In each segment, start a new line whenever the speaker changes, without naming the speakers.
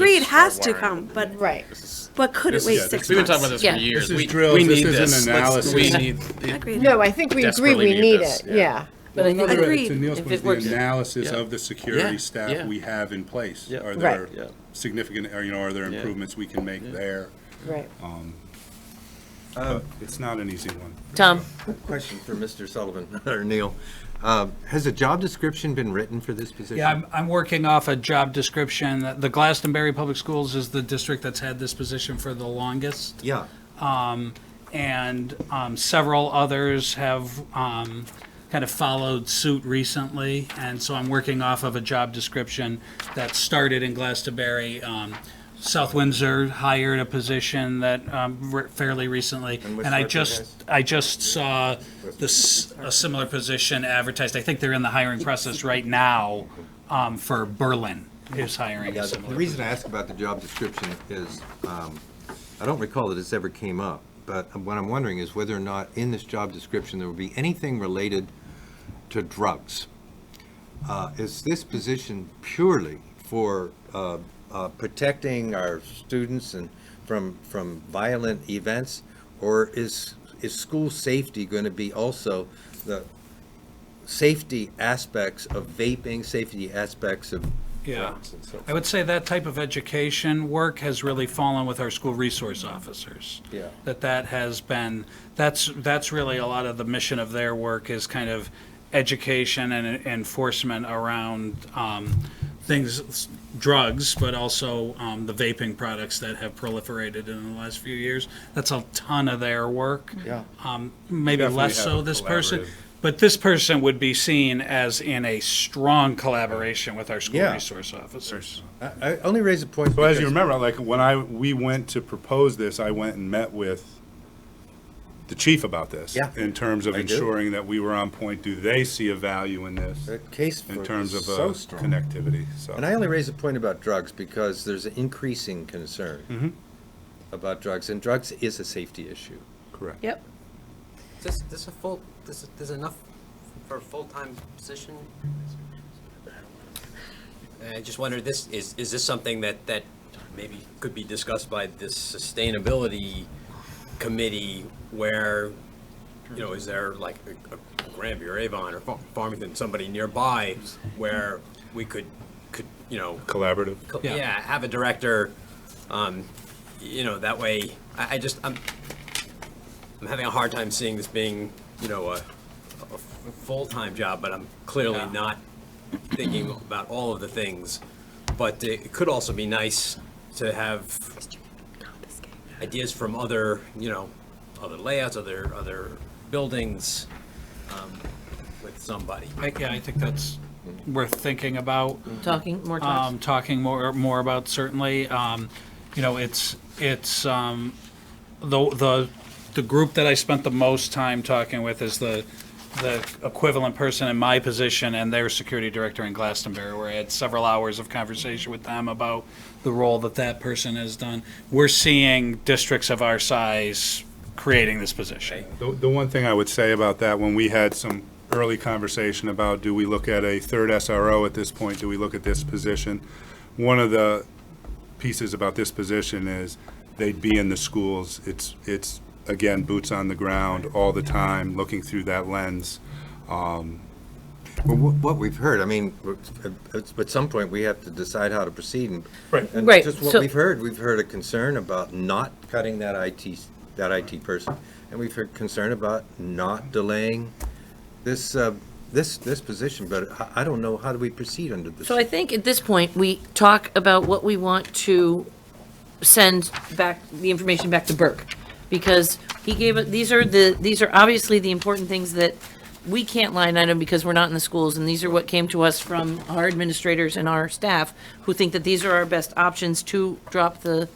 has to come, but,
Right.
but could it
This
wait
is-
six months?
We've been talking about this
Yeah.
for years.
This is
We-
drills,
We
this
need
isn't
this. Let's- We
analysis.
need,
Agreed.
No, I think we agree
Desperately
we
need
need
this,
it,
yeah.
yeah.
But I think
Another,
Agreed.
to Neil's
If
point,
it
the
works.
analysis
Yeah.
of the security
Yeah,
staff
yeah.
we have in place.
Yeah.
Are
Right.
there
Yeah.
significant, or, you know, are there
Yeah.
improvements we can make there?
Right.
But It's not an easy one.
Tom,
Question for Mr. Sullivan, or Neil. Uh, Has a job description been written for this position?
Yeah, I'm, I'm working off a job description. The Glastonbury Public Schools is the district that's had this position for the longest.
Yeah.
And um, several others have um, kind of followed suit recently. And so I'm working off of a job description that started in Glastonbury. Um, South Windsor hired a position that um, re- fairly recently.
And which
And I
sergeant
just, I just saw this, a similar position advertised. I think they're in the hiring process right now um, for Berlin is hiring
Yeah,
a
The
similar.
the reason I ask about the job description is, um, I don't recall that this ever came up, but what I'm wondering is whether or not in this job description, there would be anything related to drugs. Uh, Is this position purely for uh, uh, protecting our students and from, from violent events? Or is, is school safety going to be also the safety aspects of vaping, safety aspects of
Yeah.
drugs and so forth?
I would say that type of education work has really fallen with our school resource officers.
Yeah.
That that has been, that's, that's really a lot of the mission of their work is kind of education and enforcement around um, things, drugs, but also um, the vaping products that have proliferated in the last few years. That's a ton of their work.
Yeah.
Um, Maybe less
have a
so this person,
collaborative-
but this person would be seen as in a strong collaboration with our school
Yeah.
resource officers.
I, I only raise a point.
So as you
because-
remember, like, when I, we went to propose this, I went and met with the chief about this.
Yeah.
In terms of
I do.
ensuring that we were on point. Do they see a value in this?
That case for
In terms of uh,
so strong.
connectivity, so.
And I only raise a point about drugs because there's an increasing concern
Mm-hmm.
about drugs, and drugs is a safety issue.
Correct.
Yep.
This, this a full, this, there's enough for a full-time position? I just wonder, this, is, is this something that, that maybe could be discussed by this sustainability committee where, you know, is there like a- a Granby or Avon or Fa- Farmington, somebody nearby where we could, could, you know,
Collaborative.
co-
Yeah.
yeah, have a director, um, you know, that way, I, I just, I'm, I'm having a hard time seeing this being, you know, a, a f- full-time job, but I'm clearly
Yeah.
not thinking about all of the things. But it could also be nice to have ideas from other, you know, other layouts, other, other buildings, um, with somebody.
I- Yeah, I think that's worth thinking about,
talking, more talks.
um, talking more, more about certainly. Um, You know, it's, it's, um, the, the, the group that I spent the most time talking with is the, the equivalent person in my position and their security director in Glastonbury, where I had several hours of conversation with them about the role that that person has done. We're seeing districts of our size creating this position.
The, the one thing I would say about that, when we had some early conversation about, do we look at a third SRO at this point? Do we look at this position? One of the pieces about this position is they'd be in the schools. It's, it's, again, boots on the ground all the time, looking through that lens.
Well, wh- what we've heard, I mean, w- uh, at at some point, we have to decide how to proceed. and-
Right.
And
Right,
just what
so-
we've heard, we've heard a concern about not cutting that IT, s- that IT person, and we've heard concern about not delaying this, uh, this, this position, but I- I don't know, how do we proceed under this?
So I think at this point, we talk about what we want to send back, the information back to Burke. Because he gave, it. these are the, these are obviously the important things that we can't line item because we're not in the schools. And these are what came to us from our administrators and our staff who think that these are our best options to drop the,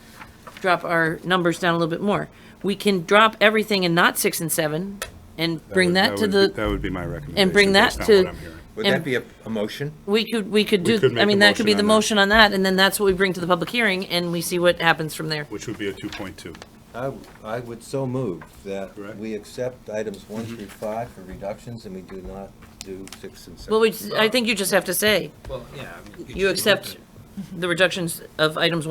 drop our numbers down a little bit more. We can drop everything and not six and seven and bring
would-
that to
would
the.
be- That would be my recommendation.
and bring that
based on
to-
what I'm hearing.
Would
and-
that be a, a motion?
We could, we could do,
could make
I
a
mean, that could be
motion
the
on that.
motion on that, and then that's what we bring to the public hearing, and we see what happens from there.
Which would be a 2.2.
I, I would so move that
Correct.
we accept items one through five for reductions, and we do not do six and seven.
Well, we, I think you just have to say,
Well, yeah. I mean,
you accept the reductions of items one.